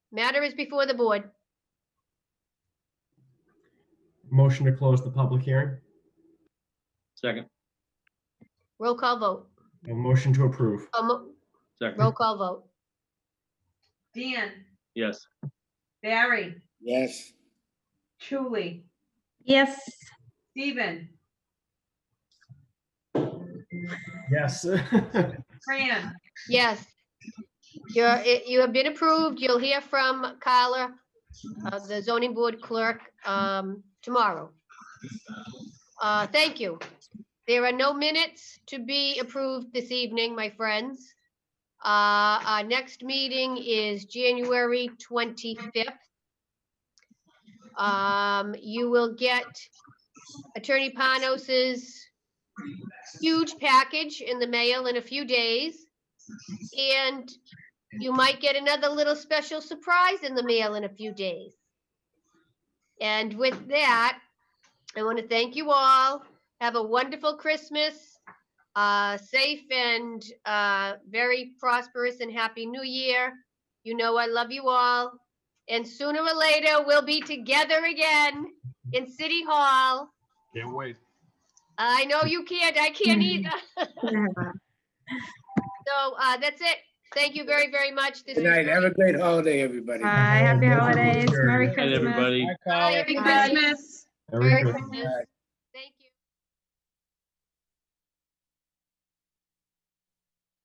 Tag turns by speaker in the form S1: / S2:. S1: Matter is before the board.
S2: Motion to close the public hearing.
S3: Second,
S1: Roll call vote.
S2: A motion to approve.
S1: Oh, mo- Roll
S3: second,
S1: call vote.
S4: Dan,
S3: yes,
S4: Barry,
S5: yes,
S4: Julie,
S6: yes,
S4: Stephen,
S2: Yes.
S4: Fran,
S1: Yes. You're, it- you have been approved. You'll hear from Carla, uh, the zoning board clerk, um, tomorrow. Uh, Thank you. There are no minutes to be approved this evening, my friends. Uh, Our next meeting is January 25th. Um, You will get Attorney Panos's huge package in the mail in a few days. And you might get another little special surprise in the mail in a few days. And with that, I want to thank you all. Have a wonderful Christmas. Uh, safe and uh, very prosperous and happy new year. You know I love you all. And sooner or later, we'll be together again in City Hall.
S7: Can't wait.
S1: I know you can't. I
S5: Hmm.
S1: can't either. So uh, that's it. Thank you very, very much. This
S5: good
S1: was
S5: night, have a
S1: great.
S5: great holiday, everybody.
S6: Bye, happy holidays, Merry
S3: and
S6: Christmas.
S3: everybody.
S5: Bye, Carl.
S1: Merry
S4: Christmas.
S1: Merry
S2: Merry Christmas.
S1: Christmas.